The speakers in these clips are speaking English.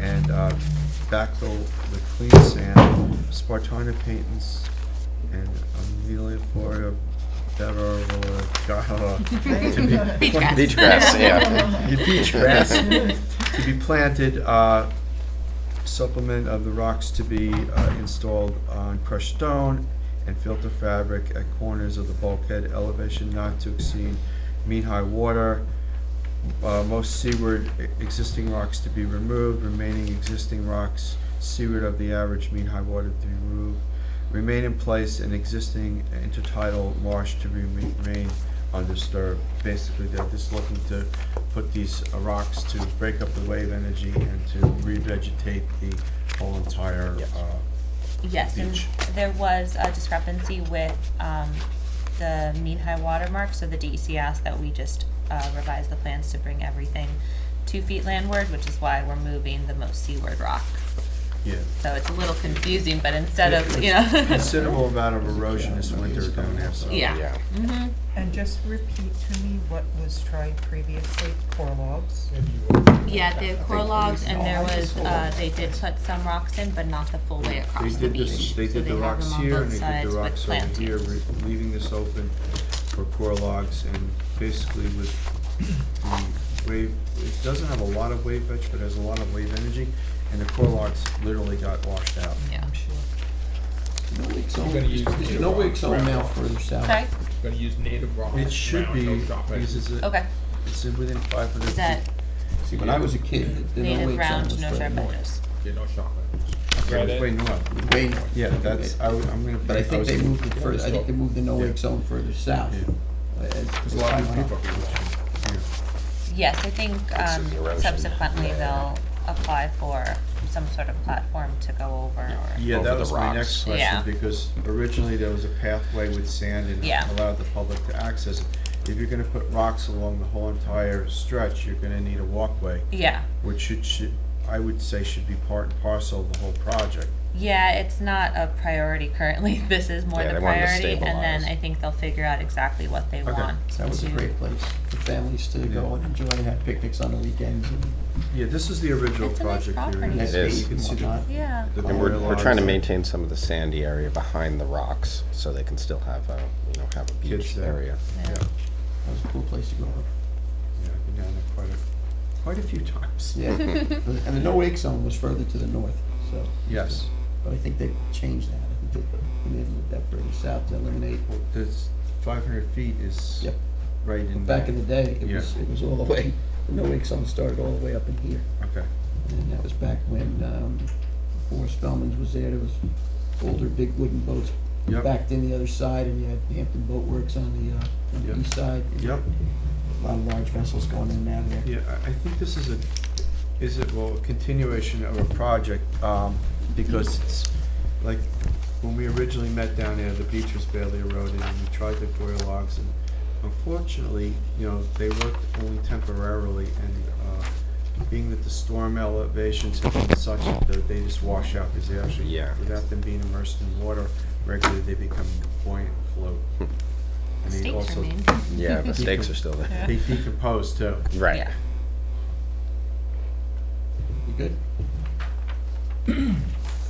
and uh, backfill with clean sand, Spartina paintings, and Amelia Florida, Better, Gala. Beach grass. Beach grass, yeah. Your beach grass to be planted, uh, supplement of the rocks to be uh, installed on crushed stone and filter fabric at corners of the bulkhead elevation not to exceed mean high water. Uh, Most seaward e- existing rocks to be removed, remaining existing rocks seaward of the average mean high water to be removed. Remain in place and existing intertidal marsh to remain remain undisturbed. Basically, they're just looking to put these uh, rocks to break up the wave energy and to revegetate the whole entire, Yes. uh, Yes, and Beach. there was a discrepancy with, um, the mean high water mark, so the DEC asked that we just, uh, revise the plans to bring everything two feet landward, which is why we're moving the most seaward rock. yeah. So it's a little confusing, but instead of, you It's know. Considerable amount of erosion this winter down there, so. Yeah. Mhm. And just repeat to me what was tried previously, core logs. Yeah, the core logs, and there was, uh, they did put some rocks in, but not the full way They across the did this, beach. they So did the have rocks them on here both and they did sides the with rocks over here, plantings. re- leaving this open for core logs and basically with the wave, it doesn't have a lot of wave veg, but has a lot of wave energy, and the core logs literally got washed out. Yeah. No wig's on, You're gonna use there's no the wig's on rock. now further south. Okay, Gonna use native rock. It should ground, be, no shop because edges. it's, a- okay, it's in within five hundred is feet. that See, when I was a kid, the no native wig's on round, was no further sharp north. edges? Yeah, no shop edges. Yeah, it's way north. Way north. Yeah, that's, I would, I'm gonna. But I think was- they moved it further, I think they moved the no Yeah. wake zone further south. Yeah. There's a lot of people who yeah. Yes, I think Fixes um, erosion. subsequently Yeah. they'll apply for some sort of platform to go over or. Yeah, over that the was my next rocks. question, Yeah. because originally there was a pathway with sand and Yeah. allowed the public to access. it. If you're gonna put rocks along the whole entire stretch, you're gonna need a walkway, Yeah, which should, should, I would say should be part and parcel of the whole project. yeah, it's not a priority currently. This is more the Yeah, they wanted to priority. And then stabilize. I think they'll figure out exactly what they Okay, want to. That was a great place for families to Yeah. go and enjoy and have picnics on the weekends and Yeah, this is the original It's a nice project here. property. nice It is. days You can and see the- whatnot. Yeah, the And we're, clear we're trying to lines. maintain some of the sandy area behind the rocks, so they can still have a, you know, have a Kids beach there. area. Yeah, yeah. That was a cool place to go. yeah, I've been down there quite a, quite a few times. Yeah, and the no wake zone was further to the north, so. Yes, But I think they changed that, I think they, they moved that further south to eliminate. well, this five hundred feet is Yep. right in. Back in the day, it Yeah. was, it was all the way, the no wake zone started all the way up in here. Okay, And that was back when, um, before Spelman's was there, there was older big wooden boats Yep. backed in the other side, and you had Hampton Boat Works on the, uh, on Yep. the east side. yep. A lot of large vessels going in and out of there. Yeah, I I think this is a, is it, well, a continuation of a project, um, because it's, like, when we originally met down there, the beach was barely eroded, and we tried the coir logs, and unfortunately, you know, they worked only temporarily, and, uh, being that the storm elevations have been such that they just wash out, because they actually, Yeah. without them being immersed in water, regularly, they become buoyant and float. And they Stakes also, remain. Yeah, the stakes are still there. they decompose too. Right. Yeah. You good?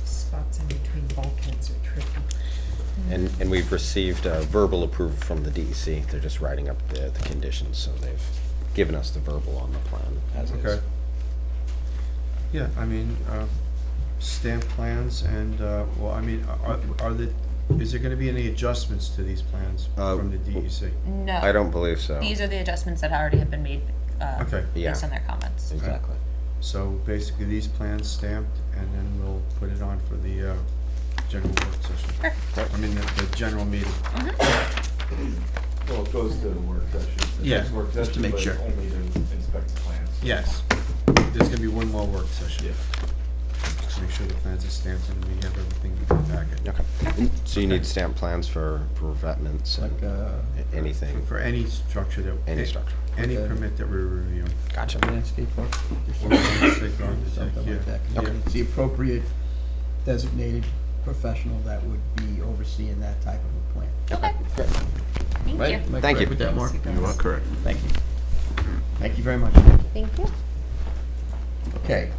Spots in between bulkheads are tricky. And, and we've received uh, verbal approval from the DEC. They're just writing up the, the conditions, so they've given us the verbal on the plan as is. Okay. Yeah, I mean, uh, stamp plans and, uh, well, I mean, are, are the, is there gonna be any adjustments to these plans Uh, from the E DEC? No. I don't believe so. These are the adjustments that already have been made, uh, Okay. Yeah. based on their comments. Exactly. So basically, these plans stamped, and then we'll put it on for the, uh, general work session. I mean, the, the general meeting. Well, it goes to the work session. It Yeah, goes to work just to session, make but sure. Only to inspect the plans. Yes, there's gonna be one more work session. Yeah. Just make sure the plans are stamped and we have everything in the packet. Okay. So you need stamp plans for, for revetments Like, and uh, a- anything? For any structure that. Any structure. Any Okay. permit that we're reviewing. Gotcha. landscape Or landscape architect or something architect, like that. yeah, yeah. It's the appropriate designated professional that would be overseeing that type of a plan. Okay, thank Right? you. Am I Thank correct you. With that, Mark? You are correct. Thank you. Thank you very much. Thank you. Okay,